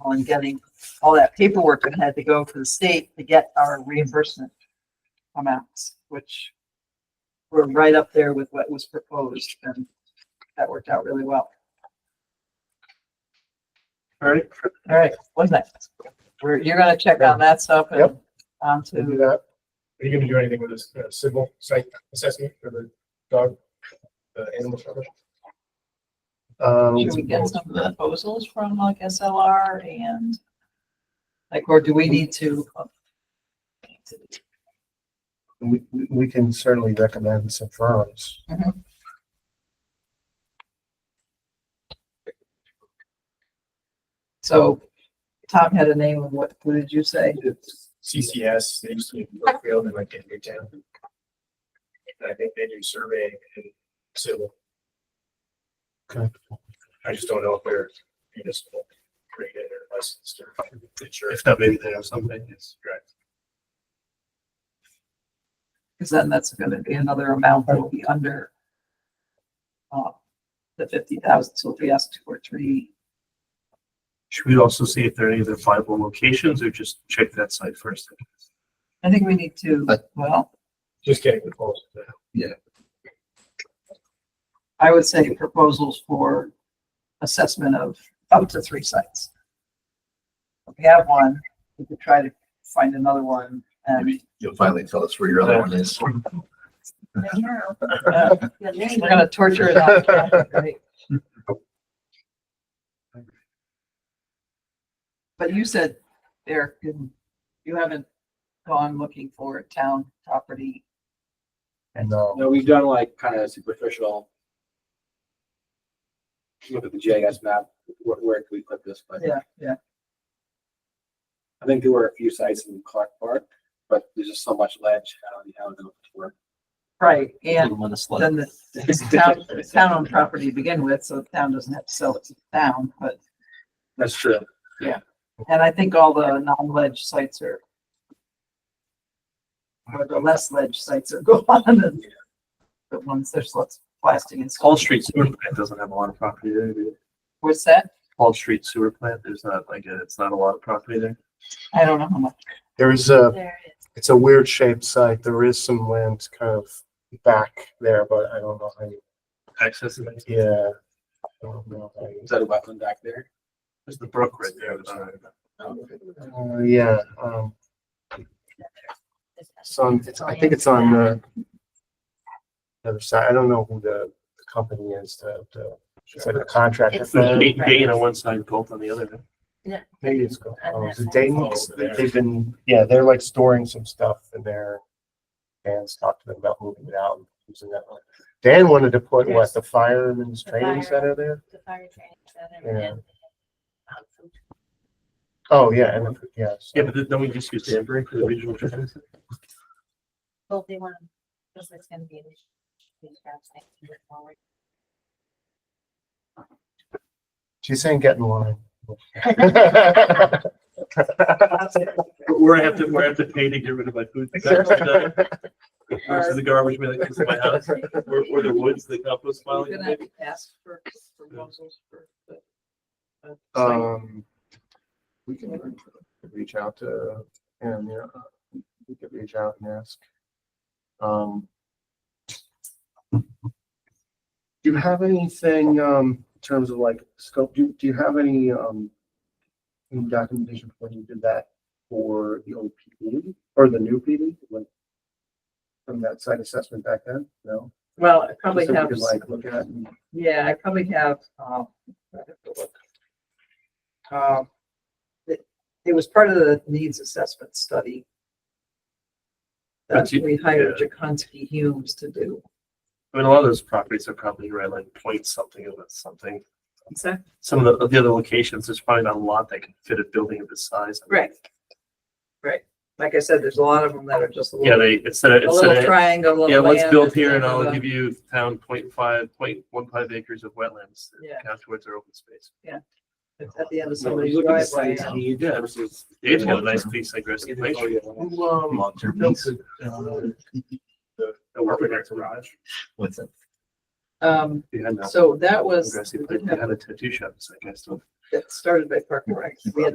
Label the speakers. Speaker 1: wonderful in getting all that paperwork that had to go to the state to get our reimbursement amounts, which were right up there with what was proposed and that worked out really well.
Speaker 2: All right,
Speaker 1: All right, what's next? We're, you're gonna check on that stuff and
Speaker 2: Yep.
Speaker 1: on
Speaker 2: we'll
Speaker 1: to,
Speaker 2: do that. Are you gonna do anything with this uh, civil site assessment for the dog, the animal shelter? Um,
Speaker 1: should we get some proposals from like SLR and like, or do we need to?
Speaker 2: We, we- we can certainly recommend some firms.
Speaker 1: So Tom had a name of what, what did you say?
Speaker 2: CCS, they used to be in Brookfield and like in Newtown. And I think they do surveying and civil. Okay. I just don't know if they're municipal, rated or licensed or. If not, maybe they have something, yes.
Speaker 1: Cause then that's gonna be another amount that will be under uh, the fifty thousand, so if we ask two or three,
Speaker 3: Should we also see if there are any other viable locations or just check that site first?
Speaker 1: I think we need to, well,
Speaker 2: Just getting the calls.
Speaker 1: I would say proposals for assessment of up to three sites. If we have one, we could try to find another one and.
Speaker 4: Maybe You'll finally tell us where your other one is.
Speaker 1: uh, We're gonna torture it out. right? But you said, Eric, you you haven't gone looking for town property.
Speaker 2: No,
Speaker 5: No, we've done like kind of superficial. Look at the GIS map, where, where can we put this, but
Speaker 1: Yeah, yeah.
Speaker 5: I think there were a few sites in Clark Park, but there's just so much ledge, I don't know how it's going to work.
Speaker 1: Right, and
Speaker 4: Little one is like-
Speaker 1: then the, it's town, it's town owned property to begin with, so the town doesn't have to sell it to the town, but,
Speaker 5: That's true.
Speaker 1: and I think all the non-ledge sites are or the less ledge sites are gone, and the ones there's lots of plastic and stuff.
Speaker 3: Hall Street Sewer Plant doesn't have a lot of property there. do they?
Speaker 1: What's that?
Speaker 3: Hall Street Sewer Plant, there's not like, a- it's not a lot of property there.
Speaker 1: I don't know how much.
Speaker 2: there is a,
Speaker 6: There it is.
Speaker 2: it's a weird shaped site. There is some land kind of back there, but I don't know how you,
Speaker 3: Access is,
Speaker 2: yeah. Uh, I don't know how you-
Speaker 5: Is that a wetland back there?
Speaker 3: there's the brook right there.
Speaker 2: Uh, yeah, um,
Speaker 6: This is-
Speaker 2: it's on, it's, I think it's on the other side. I don't know who the the company is, the, the, it's like a contractor.
Speaker 6: It's-
Speaker 3: There's
Speaker 2: firm.
Speaker 3: Dayton Dayton on one side, Gulf on the other.
Speaker 2: Maybe it's called,
Speaker 6: And
Speaker 2: oh, is it
Speaker 6: that's-
Speaker 2: Dayton?
Speaker 5: Over there.
Speaker 2: They've been, yeah, they're like storing some stuff in there. Dan's talked to them about moving it out and using that one. Dan wanted to put what, the fireman's
Speaker 6: The
Speaker 2: training
Speaker 6: fire-
Speaker 2: center there?
Speaker 6: The fire training center.
Speaker 2: Yeah.
Speaker 6: and, um, food
Speaker 2: Oh, yeah, and, yeah. so-
Speaker 3: Yeah, but then we just use Danbury for the regional. transit.
Speaker 6: Well, they want, because it's gonna be. an issue. These guys think to move forward.
Speaker 2: She's saying get in line.
Speaker 3: Where I have to, where I have to pay to get rid of my food. Versus the garbage man that comes to my house, or, or the woods, the compost pile.
Speaker 1: We're gonna have to ask for proposals for the. uh, site.
Speaker 2: Um, we can reach out to, and, you know, we could reach out and ask. Um. Do you have anything, um, in terms of like scope, do, do you have any, um, any documentation for when you did that for the old PD or the new PD? Like, From that site assessment back then, no?
Speaker 1: Well, I probably
Speaker 2: Something
Speaker 1: have,
Speaker 2: we could, Like, look at and
Speaker 1: yeah, I probably have, um. I have to look. Um, It, it was part of the needs assessment study. That
Speaker 3: But you-
Speaker 1: we hired Jaconski Humes to do.
Speaker 3: I mean, a lot of those properties are probably right, like point something of it, something.
Speaker 1: Exactly.
Speaker 3: Some of the, of the other locations, there's probably not a lot that can fit a building of this size.
Speaker 1: Right. Right. Like I said, there's a lot of them that are just a
Speaker 3: Yeah,
Speaker 1: little,
Speaker 3: they, instead of,
Speaker 1: a
Speaker 3: instead
Speaker 1: little
Speaker 3: of,
Speaker 1: triangle. little
Speaker 3: yeah, let's
Speaker 1: land,
Speaker 3: build here and I'll
Speaker 1: uh,
Speaker 3: give you town point five, point one five acres of wetlands.
Speaker 1: Yeah.
Speaker 3: Count towards our open space.
Speaker 1: It's at the end of
Speaker 5: So when
Speaker 1: somebody's
Speaker 5: you look at the
Speaker 1: driveway.
Speaker 5: sites, I mean, you did versus.
Speaker 3: Dave's got a nice piece like rest of nature.
Speaker 2: Who, um,
Speaker 4: Long-term
Speaker 2: built
Speaker 4: lease.
Speaker 2: the, uh,
Speaker 3: The working garage.
Speaker 4: What's it?
Speaker 1: Um,
Speaker 3: Behind that
Speaker 1: so that was,
Speaker 3: aggressive,
Speaker 1: we
Speaker 3: but
Speaker 1: did
Speaker 3: they
Speaker 1: have-
Speaker 3: had a tattoo shop, so I guess. so
Speaker 1: that started by Park and Rec. We had